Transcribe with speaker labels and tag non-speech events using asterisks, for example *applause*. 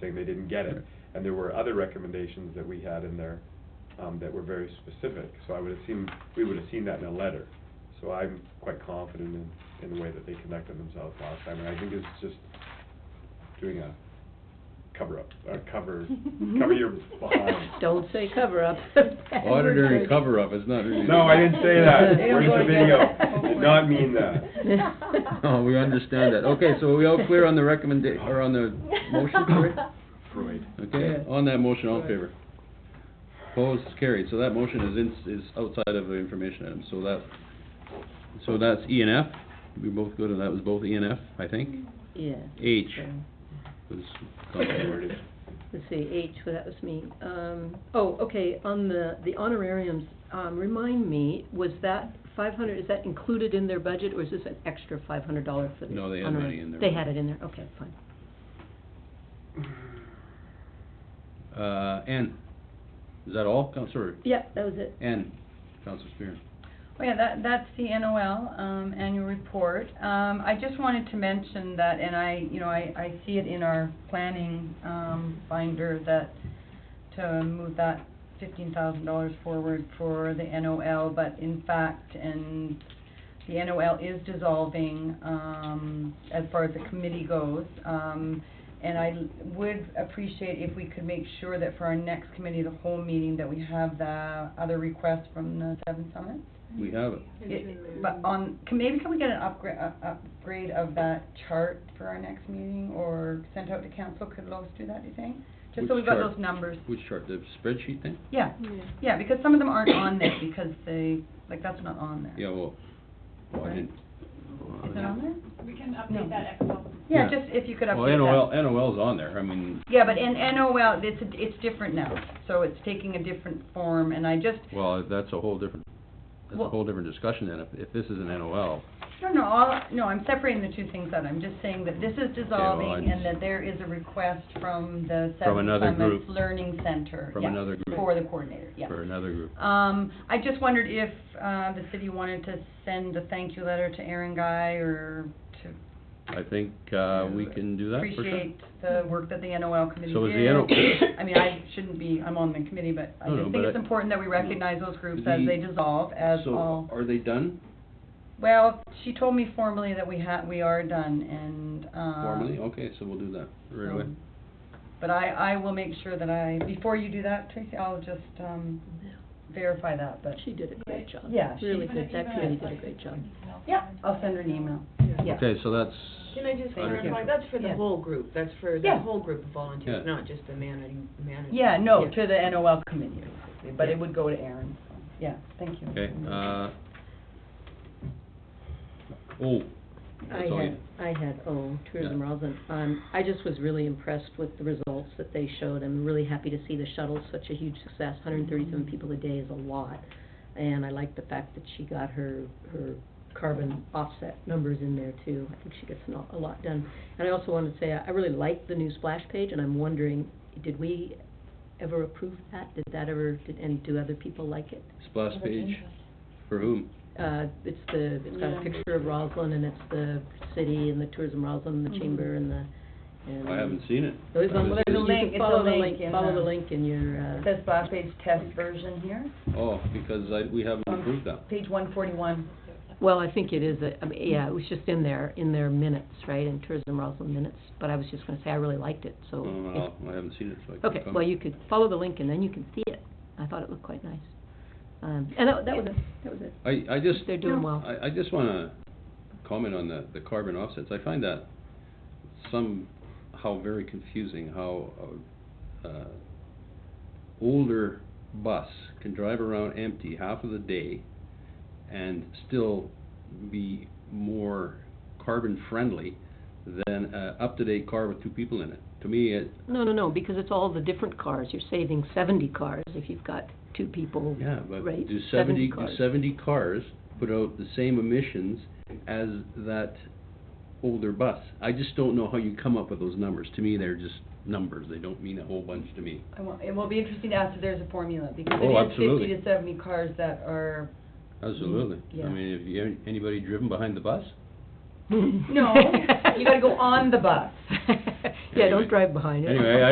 Speaker 1: saying they didn't get it. And there were other recommendations that we had in there, um, that were very specific. So I would assume, we would have seen that in a letter. So I'm quite confident in, in the way that they conducted themselves last time, and I think it's just doing a cover-up, or
Speaker 2: *laughs*
Speaker 1: cover, *laughs* cover your behind.
Speaker 3: *laughs* Don't say cover-up.
Speaker 4: *laughs* Auditor and cover-up is not really.
Speaker 1: No, I
Speaker 4: *laughs*
Speaker 1: didn't say that.
Speaker 3: They
Speaker 1: Where's the
Speaker 3: don't
Speaker 1: video? Did not mean that.
Speaker 4: *laughs* No, Oh, we understand that. Okay, so
Speaker 3: *laughs*
Speaker 4: are we all clear on the recommenda, or on the motion, Cory?
Speaker 1: Freud.
Speaker 4: Okay, on that motion, all in favor? Opposed, carried. So that motion is in, is outside of the information item, so that, so that's E and F. We both go to, that was both E and F, I think.
Speaker 3: Yeah.
Speaker 4: H
Speaker 3: so,
Speaker 4: was commonly worded.
Speaker 3: Let's see, H, well, that was me. Um, oh, okay, on the, the honorariums, um, remind me, was that five hundred, is that included in their budget, or is this an extra five hundred dollar for the
Speaker 4: No, they had
Speaker 3: honorarium?
Speaker 4: money in their
Speaker 3: They
Speaker 4: budget.
Speaker 3: had it in there, okay, fine.
Speaker 4: Uh, N. Is that all, Counselor?
Speaker 3: Yeah, that was it.
Speaker 4: N, Counselor Spear.
Speaker 2: Well, yeah, that, that's the NOL, um, annual report. Um, I just wanted to mention that, and I, you know, I, I see it in our planning, um, binder that to move that fifteen thousand dollars forward for the NOL, but in fact, and the NOL is dissolving, um, as far as the committee goes. Um, and I l- would appreciate if we could make sure that for our next committee, the whole meeting, that we have the other request from the Seven Summit.
Speaker 4: We have it.
Speaker 3: Mm-hmm.
Speaker 2: It- But on, can, maybe can we get an upgrade, uh, upgrade of that chart for our next meeting or sent out to council? Could Lois do that, do you think? Just so
Speaker 4: Which
Speaker 2: we've got
Speaker 4: chart?
Speaker 2: those numbers.
Speaker 4: Which chart, the spreadsheet thing?
Speaker 2: Yeah, yeah, because some of them aren't on there because they, like, that's not on there.
Speaker 4: Yeah, well, well, I didn't.
Speaker 2: Is it on there?
Speaker 5: We can
Speaker 2: No.
Speaker 5: update that Excel.
Speaker 2: Yeah,
Speaker 4: Yeah.
Speaker 2: just if you could
Speaker 4: Well,
Speaker 2: update that.
Speaker 4: NOL, NOL's on there, I mean,
Speaker 2: Yeah, but in NOL, it's, a- it's different now, so it's taking a different form, and I just,
Speaker 4: well, that's a whole different, that's a
Speaker 2: Well-
Speaker 4: whole different discussion then, if, if this is an NOL.
Speaker 2: no, no, all, no, I'm separating the two things out, I'm just saying that this is dissolving,
Speaker 4: I-
Speaker 2: and that there is a request from the
Speaker 4: From
Speaker 2: Seven
Speaker 4: another
Speaker 2: Summits
Speaker 4: group.
Speaker 2: Learning Center,
Speaker 4: From
Speaker 2: yeah,
Speaker 4: another group.
Speaker 2: for the coordinator, yeah.
Speaker 4: For another group.
Speaker 2: Um, I just wondered if, uh, the city wanted to send a thank you letter to Aaron Guy, or to
Speaker 4: I think, uh, we can do that for sure.
Speaker 2: appreciate the work that the NOL committee did.
Speaker 4: So is the NO
Speaker 2: I mean, I shouldn't be, I'm on the committee, but I
Speaker 4: No, no,
Speaker 2: just
Speaker 4: but
Speaker 2: think it's
Speaker 4: I-
Speaker 2: important that we recognize those groups as
Speaker 4: The-
Speaker 2: they dissolve, as all.
Speaker 4: So, are they done
Speaker 2: Well, she told me formally that we ha, we are done, and, um.
Speaker 4: formally? Okay, so we'll do that right away.
Speaker 2: um, But I, I will make sure that I, before you do that, Tracy, I'll just, um, verify that, but,
Speaker 3: She did a great job.
Speaker 2: Yeah, she-
Speaker 3: Really good, that committee did a great job.
Speaker 2: yeah, I'll send her an email. Yeah.
Speaker 4: Okay, so that's,
Speaker 6: Can I just
Speaker 4: Under
Speaker 6: clarify,
Speaker 4: control.
Speaker 6: that's for
Speaker 2: Yeah.
Speaker 6: the whole group, that's for the
Speaker 2: Yeah.
Speaker 6: whole group of
Speaker 4: Yeah.
Speaker 6: volunteers, not just the managing, manager?
Speaker 2: Yeah, no,
Speaker 3: Yeah.
Speaker 2: to the NOL committee, basically, but it would go to Aaron, so, yeah, thank you.
Speaker 4: okay, uh, oh,
Speaker 3: I
Speaker 4: that's all you,
Speaker 3: had, I had, oh, tourism
Speaker 4: Yeah.
Speaker 3: Roslin, um, I just was really impressed with the results that they showed, I'm really happy to see the shuttle, such a huge success, hundred and thirty-seven
Speaker 4: Mm-hmm.
Speaker 3: people a day is a lot. And I like the fact that she got her, her carbon offset numbers in there too, I think she gets an aw- a lot done. And I also wanted to say, I I really liked the new splash page, and I'm wondering, did we ever approve that? Did that ever, did, and do other people like it?
Speaker 4: splash page, for whom?
Speaker 3: uh, it's the, it's got a
Speaker 6: Yeah.
Speaker 3: picture of Roslyn, and it's the city and the tourism Roslin, and
Speaker 2: Mm-hmm.
Speaker 3: the chamber and the, and.
Speaker 4: I haven't seen it.
Speaker 3: It was
Speaker 4: I
Speaker 3: on,
Speaker 4: was
Speaker 3: you
Speaker 2: There's a
Speaker 3: can
Speaker 2: link, it's a
Speaker 3: follow the
Speaker 2: link
Speaker 3: link,
Speaker 2: in
Speaker 3: follow
Speaker 2: the-
Speaker 3: the link in your, uh.
Speaker 2: Says last page test version here,
Speaker 4: Oh, because I, we haven't
Speaker 2: Um,
Speaker 4: approved that.
Speaker 2: page one forty-one.
Speaker 3: Well, I think it is, a- I mean, yeah, it was just in their, in their minutes, right, in tourism Roslin minutes, but I was just gonna say, I really liked it, so. if-
Speaker 4: Oh, I haven't seen it, so I can't
Speaker 3: Okay,
Speaker 4: comment.
Speaker 3: well, you could follow the link and then you can see it, I thought it looked quite nice. Um, and that, that was it, that was it.
Speaker 4: I, I just.
Speaker 3: They're doing well.
Speaker 4: I, I just wanna comment on the, the carbon offsets. I find that somehow very confusing how, a- uh, older bus can drive around empty half of the day and still be more carbon friendly than a up-to-date car with two people in it. To me, it,
Speaker 3: No, no, no, because it's all the different cars, you're saving seventy cars if you've got two people, right?
Speaker 4: Yeah, but do seventy, do
Speaker 3: cars.
Speaker 4: seventy cars put out the same emissions as that older bus? I just don't know how you come up with those numbers. To me, they're just numbers. They don't mean a whole bunch to me.
Speaker 2: I will, it will be interesting to ask if there's a formula, because
Speaker 4: Oh,
Speaker 2: it is fifty
Speaker 4: absolutely.
Speaker 2: to seventy cars that are,
Speaker 4: Absolutely. I
Speaker 2: Yeah.
Speaker 4: mean, have you, anybody driven behind the bus?
Speaker 2: no, *laughs* you gotta go on the bus.
Speaker 3: Yeah, *laughs*
Speaker 4: Anyway.
Speaker 3: don't drive behind it.
Speaker 4: Anyway,